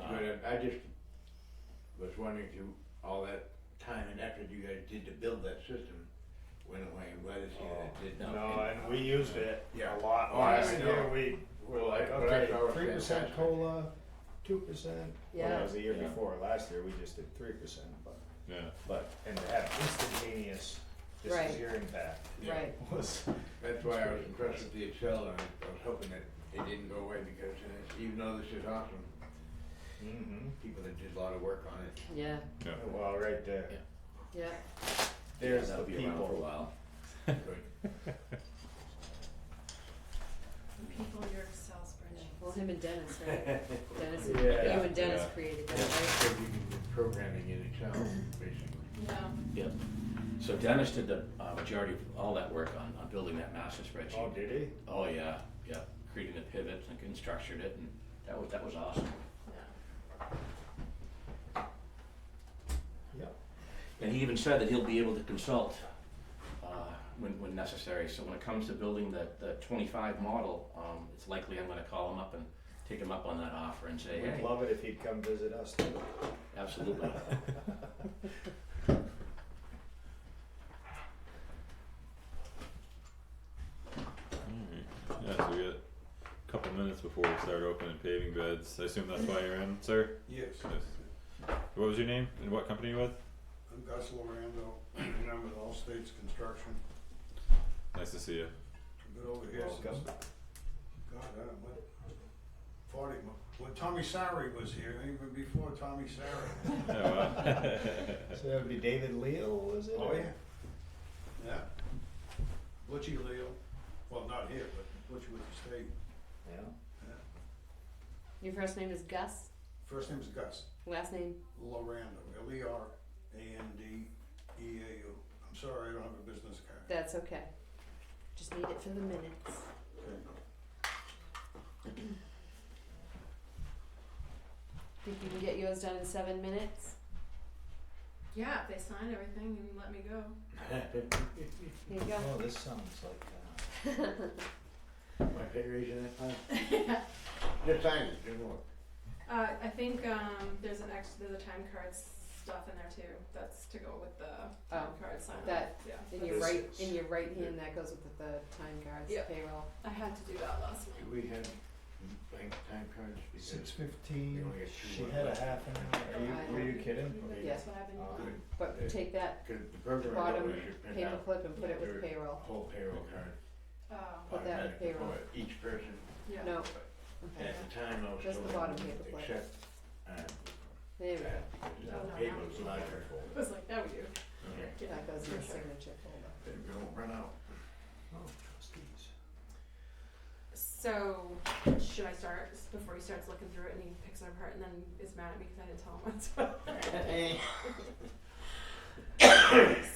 Uh, I just was wondering through all that time and effort you guys did to build that system, went away, and glad to see that it did not. No, and we used it Yeah. a lot. Oh, I Last know. year, we were Well, like, I- but I okay, thought it was three percent fantastic. cola, two percent. Well, Yeah. that was the year Yeah. before, last year, we just did three percent, but, Yeah. but, and to have instantaneous, this Right. is your impact, Yeah. Right. was, That's why I was impressed with the Excel, and I was hoping that it didn't go away, because uh, even though this is awesome, mhm, people that did a lot of work on it, Yeah, Yeah. well, right there, Yeah. yeah. there's the That'll be around for a people. while. but People, your Excel spreadsheet. Well, him and Dennis, right? Dennis, you Yeah. and Dennis Yeah. created that, right? Because you can do programming in Excel, basically. No. Yep. So Dennis did the uh, majority of all that work on, on building that master spreadsheet. Oh, did he? Oh yeah, yeah. Creating the pivots and and structured it, and that was that was awesome. Yep. And he even said that he'll be able to consult uh, when when necessary. So when it comes to building the the 25 model, um, it's likely I'm going to call him up and take him up on that offer and say, We'd hey, love it if he'd come visit us too. absolutely. Alright, Mm-hmm. yeah, so we got a couple minutes before we start opening paving beds, I assume that's why you're in, sir? Yes, Yes. What was your name and what company you with? I'm Gus Lorando, and I'm with All States Construction. Nice to see you. I've been over here since, Welcome. God, I don't know, forty, mo- when Tommy Sari was here, even before Tommy Sari. Oh, wow. So that would be David Leal, was it? Oh, yeah. Yeah. Butchie Leo, well, not here, but Butchie with the state. Yeah. Your first name is Gus, First name's Gus last name, Lorando, L E R A N D E A U. I'm sorry, I don't have a business card. that's okay. Just need it for the minutes. Okay. Think you can get yours done in seven minutes? Yeah, if they sign everything and let me go. There you go. Oh, this sounds like, uh, My fingers in that time. Just sign it, just look. Uh, I think um, there's an extra, there's a time card stuff in there too. That's to go with the time Oh, card sign. that- Yeah. In your This right, is- in your right hand, that goes with the time cards, Yep. payroll. I had to do that last Do night. we have blank time cards? Because- Six We fifteen, only had two she left. had a half an hour, I are you, were you know. kidding? Yeah. That's what I've been Uh, doing. But Yeah. take that Cause the program I Bottom wrote, we should print out paperclip and put it with Sure. payroll. a whole payroll card. Oh, Put that with automatic payroll. for Each person, yeah. No, okay, at the time I was Just the told, bottom paperclip. except, uh, there we go, that, No, because no, the not payroll's me. larger. It was like, that we do. Okay. Yeah. that goes in the signature folder. But we won't run out. Oh, trustees. So, should I start s- before he starts looking through it and he picks it apart and then is mad at me because I didn't tell him what's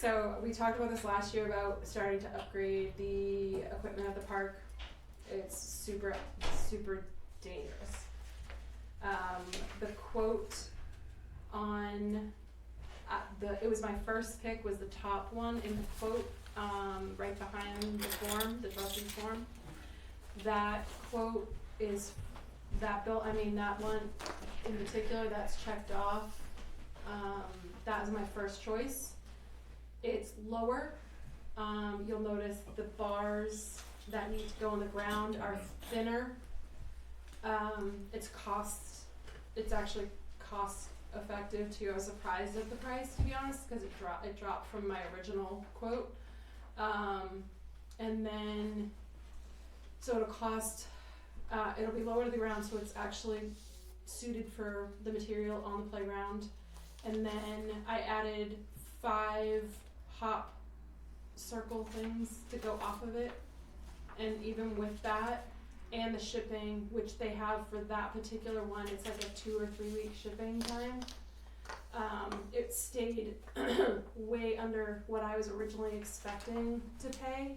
So we talked about this last year about starting to upgrade the equipment at the park. It's super, super dangerous. Um, the quote on, uh, the, it was my first pick was the top one in the quote, um, right behind the form, the trustee form. That quote is, that bill, I mean, that one in particular, that's checked off. Um, that was my first choice. It's lower. Um, you'll notice the bars that need to go on the ground are thinner. Um, it's cost, it's actually cost effective too. I was surprised at the price, to be honest, because it dropped, it dropped from my original quote. Um, and then, so it'll cost, uh, it'll be lower to the ground, so it's actually suited for the material on the playground. And then I added five hop circle things to go off of it. And even with that and the shipping, which they have for that particular one, it's like a two or three week shipping time. Um, it stayed way under what I was originally expecting to pay.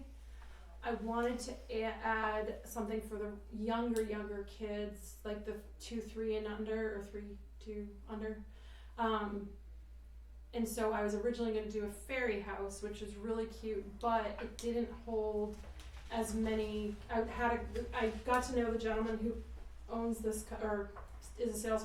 I wanted to a- add something for the younger, younger kids, like the two, three and under, or three, two, under. Um, and so I was originally going to do a fairy house, which was really cute, but it didn't hold as many. I had a, I got to know the gentleman who owns this co- or is a salesperson